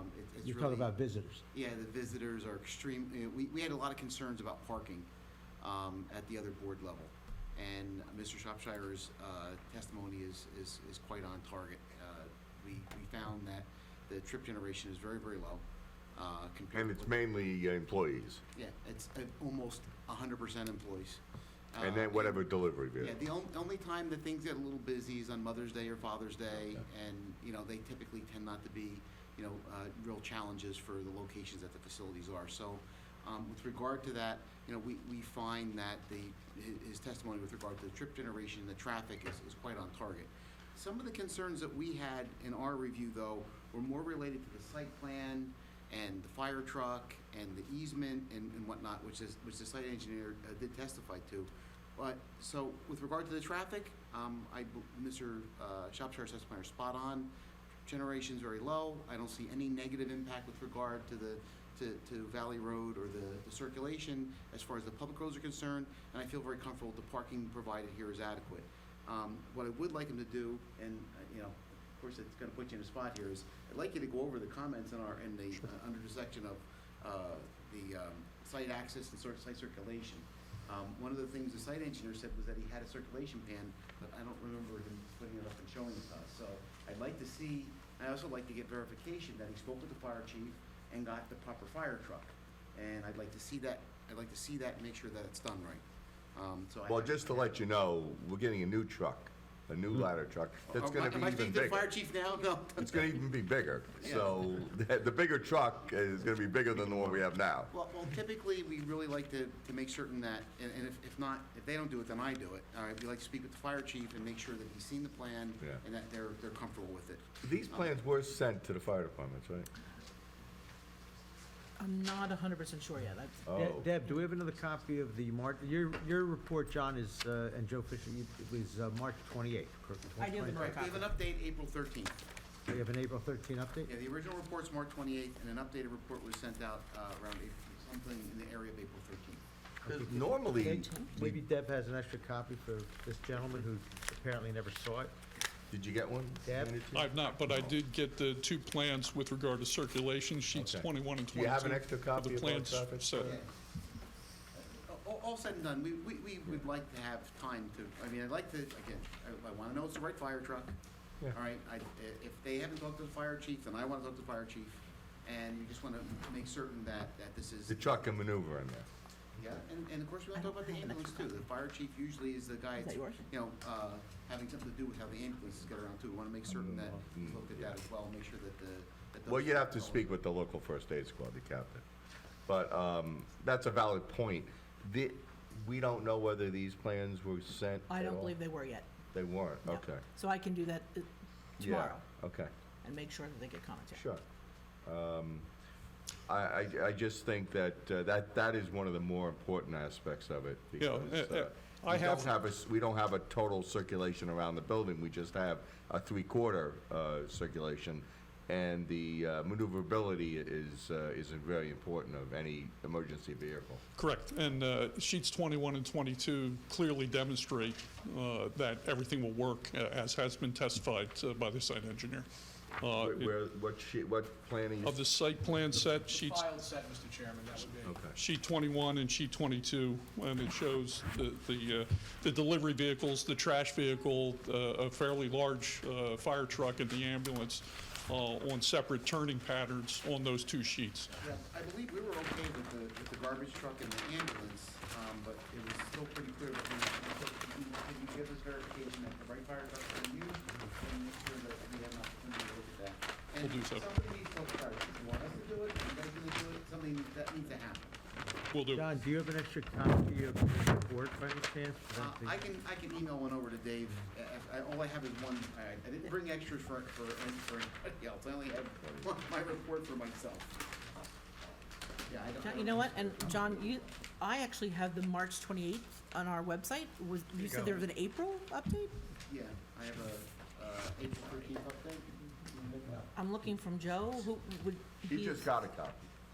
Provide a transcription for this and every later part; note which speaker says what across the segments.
Speaker 1: is
Speaker 2: You're
Speaker 1: Um, really-
Speaker 2: talking about visitors.
Speaker 1: Yeah, the visitors are extreme, you know, we, we had a lot of concerns about parking, um, at the other board level. And Mr. Shropshire's, uh, testimony is, is, is quite on target. Uh, we, we found that the trip generation is very, very low, uh, compared.
Speaker 3: And
Speaker 1: to what-
Speaker 3: it's mainly uh, employees,
Speaker 1: Yeah, it's, uh, almost hundred percent employees.
Speaker 3: and
Speaker 1: Uh,
Speaker 3: then whatever delivery
Speaker 1: Yeah,
Speaker 3: vehicle.
Speaker 1: the on- only time that things get a little busy is on Mother's Day or Father's Day, and, you know, they typically tend not to be, you know, uh, real challenges for the locations that the facilities are. So, um, with regard to that, you know, we, we find that the, hi- his testimony with regard to the trip generation, and the traffic is, is quite on target. Some of the concerns that we had in our review, though, were more related to the site plan and the fire truck and the easement and, and whatnot, which is, which the site engineer uh, did testify to. But, so with regard to the traffic, um, I, bel- Mr. uh, Shropshire's testimony is spot on. Generation's very low. I don't see any negative impact with regard to the, to, to Valley Road or the, the circulation as far as the public roads are concerned. And I feel very comfortable the parking provided here is adequate. Um, what I would like him to do, and, uh, you know, of course, it's gonna put you in a spot here, is I'd like you to go over the comments in our, in the, uh, under the section of, uh, the, um, site access and sort of site circulation. Um, one of the things the site engineer said was that he had a circulation pan, but I don't remember him putting it up and showing it to us, so I'd like to see, i also like to get verification that he spoke with the fire chief and got the proper fire truck. And I'd like to see that, I'd like to see that and make sure that it's done right. Um, so I.
Speaker 3: Well, just to let you know, we're getting a new truck, a
Speaker 1: Hmm.
Speaker 3: new ladder truck, that's
Speaker 1: Am I-
Speaker 3: gonna be
Speaker 1: Am I
Speaker 3: even
Speaker 1: speaking to the fire
Speaker 3: bigger.
Speaker 1: chief now? No.
Speaker 3: It's gonna even be bigger,
Speaker 1: Yeah.
Speaker 3: so the the bigger truck is gonna be bigger than the one we have now.
Speaker 1: Well, well, typically, we really like to, to make certain that, and, and if, if not, if they don't do it, then I do it. All right, we like to speak with the fire chief and make sure that he's seen the plan
Speaker 3: Yeah.
Speaker 1: and that they're, they're comfortable with it.
Speaker 3: These plans were sent to the fire departments, right?
Speaker 4: I'm not hundred percent sure yet. That's,
Speaker 2: De-
Speaker 3: Oh,
Speaker 2: Deb, do we have another copy of the March, your, your report, John, is, uh, and Joe Fisher, you- it was uh, March 28th, correct?
Speaker 4: I do have the
Speaker 2: 28th.
Speaker 1: All right, we have an update April thirteenth.
Speaker 2: We have an April 13 update?
Speaker 1: Yeah, the original report's March twenty-eighth, and an updated report was sent out, uh, around April, something in the area of April thirteenth.
Speaker 3: 'Cause normally,
Speaker 2: Maybe Deb has an extra copy for this gentleman who apparently never saw it.
Speaker 3: did you get one?
Speaker 2: Deb?
Speaker 3: handed to you?
Speaker 5: I've not, but I did get the two plans with regard to circulation, sheets
Speaker 3: Okay.
Speaker 5: 21 and 22.
Speaker 3: Do you have an extra
Speaker 5: of
Speaker 3: copy
Speaker 5: the
Speaker 3: of both
Speaker 5: plans
Speaker 3: copies?
Speaker 5: set.
Speaker 1: Yeah. Uh, All, all said and done, we, we, we would like to have time to, I mean, I'd like to, again, I, I wanna know it's the right fire truck. All right, I, i- if they haven't talked to the fire chief, then I wanna talk to the fire chief, and you just wanna make certain that, that this is.
Speaker 3: The truck can maneuver in there.
Speaker 1: Yeah, and, and of course, we wanna talk about the ambulance too, the fire chief usually is the guy,
Speaker 4: Is that
Speaker 1: that's,
Speaker 4: yours?
Speaker 1: you know, uh, having something to do with how the ambulances get around too, we wanna make certain that, we look at that as well, make sure that the. that
Speaker 3: Mm-hmm. Well,
Speaker 1: those-
Speaker 3: you'd have to speak with the local first aid squad, the captain. But um, that's a valid point. The- We don't know whether these plans were sent
Speaker 4: I
Speaker 3: at
Speaker 4: don't
Speaker 3: all?
Speaker 4: believe they were yet.
Speaker 3: They weren't,
Speaker 4: no.
Speaker 3: okay.
Speaker 4: So I can do that uh,
Speaker 3: Yeah,
Speaker 4: tomorrow
Speaker 3: Okay,
Speaker 4: and make sure that they get commentary.
Speaker 3: sure. Um, I, I, I just think that, uh, that, that is one of the more important aspects of it.
Speaker 5: Yeah,
Speaker 3: because,
Speaker 5: eh, eh,
Speaker 3: uh,
Speaker 5: I
Speaker 3: we don't
Speaker 5: have-
Speaker 3: a s- We don't have a total circulation around the building, we just have a three-quarter uh, circulation. And the uh, maneuverability is, uh, is very important of any emergency vehicle.
Speaker 5: Correct, and uh, sheets 21 and 22 clearly demonstrate uh, that everything will work, uh, as has been testified uh, by the site engineer. Uh,
Speaker 3: Where- Where, what sheet, what plan are you?
Speaker 5: Of the site plan set, sheets
Speaker 6: Filed set, Mr. Chairman, that would be.
Speaker 3: Okay.
Speaker 5: sheet 21 and sheet 22, and it shows the, the, uh, the delivery vehicles, the trash vehicle, uh, a fairly large uh, fire truck and the ambulance uh, on separate turning patterns on those two sheets.
Speaker 1: Yeah, I believe we were okay with the, with the garbage truck and the ambulance, um, but it was still pretty clear that we, we took- we- did you give us verification that the right fire truck was used? And make sure that we have an opportunity to look at that.
Speaker 5: We'll do so.
Speaker 1: And somebody needs to, all right, if you want us to do it, if you guys gonna do it, something that needs to happen.
Speaker 5: Will do.
Speaker 2: John, do you have an extra copy of the report by any chance?
Speaker 1: Uh, I can, I can email one over to Dave, Uh, I, I, all I have is one, I, I didn't bring extras for, for, for anybody else, I only have one- my report for myself. Yeah, I don't. I
Speaker 4: John, you
Speaker 1: don't-
Speaker 4: know what? And John, you, I actually have the March twenty eighth on our website. Was you said there was an April update?
Speaker 1: Yeah, I have a, uh, April thirteenth update.
Speaker 4: I'm looking from Joe. Who would
Speaker 3: He
Speaker 4: be-
Speaker 3: just got a copy.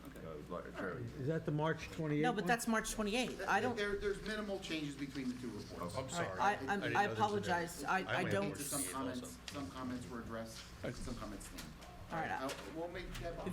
Speaker 1: Okay.
Speaker 3: Uh, like, Jerry.
Speaker 2: Is that the March 28th?
Speaker 4: No, but that's March twenty eighth. I don't.
Speaker 1: There, there's minimal changes between the two reports.
Speaker 3: Oh,
Speaker 7: I'm
Speaker 4: All
Speaker 7: sorry.
Speaker 4: right, I, I'm-
Speaker 7: didn't know this
Speaker 4: I
Speaker 7: was there.
Speaker 4: apologize. I, I
Speaker 7: went
Speaker 4: don't.
Speaker 1: Some comments, some comments were addressed, some comments stand.
Speaker 4: All right, I-
Speaker 1: I'll- We'll make that.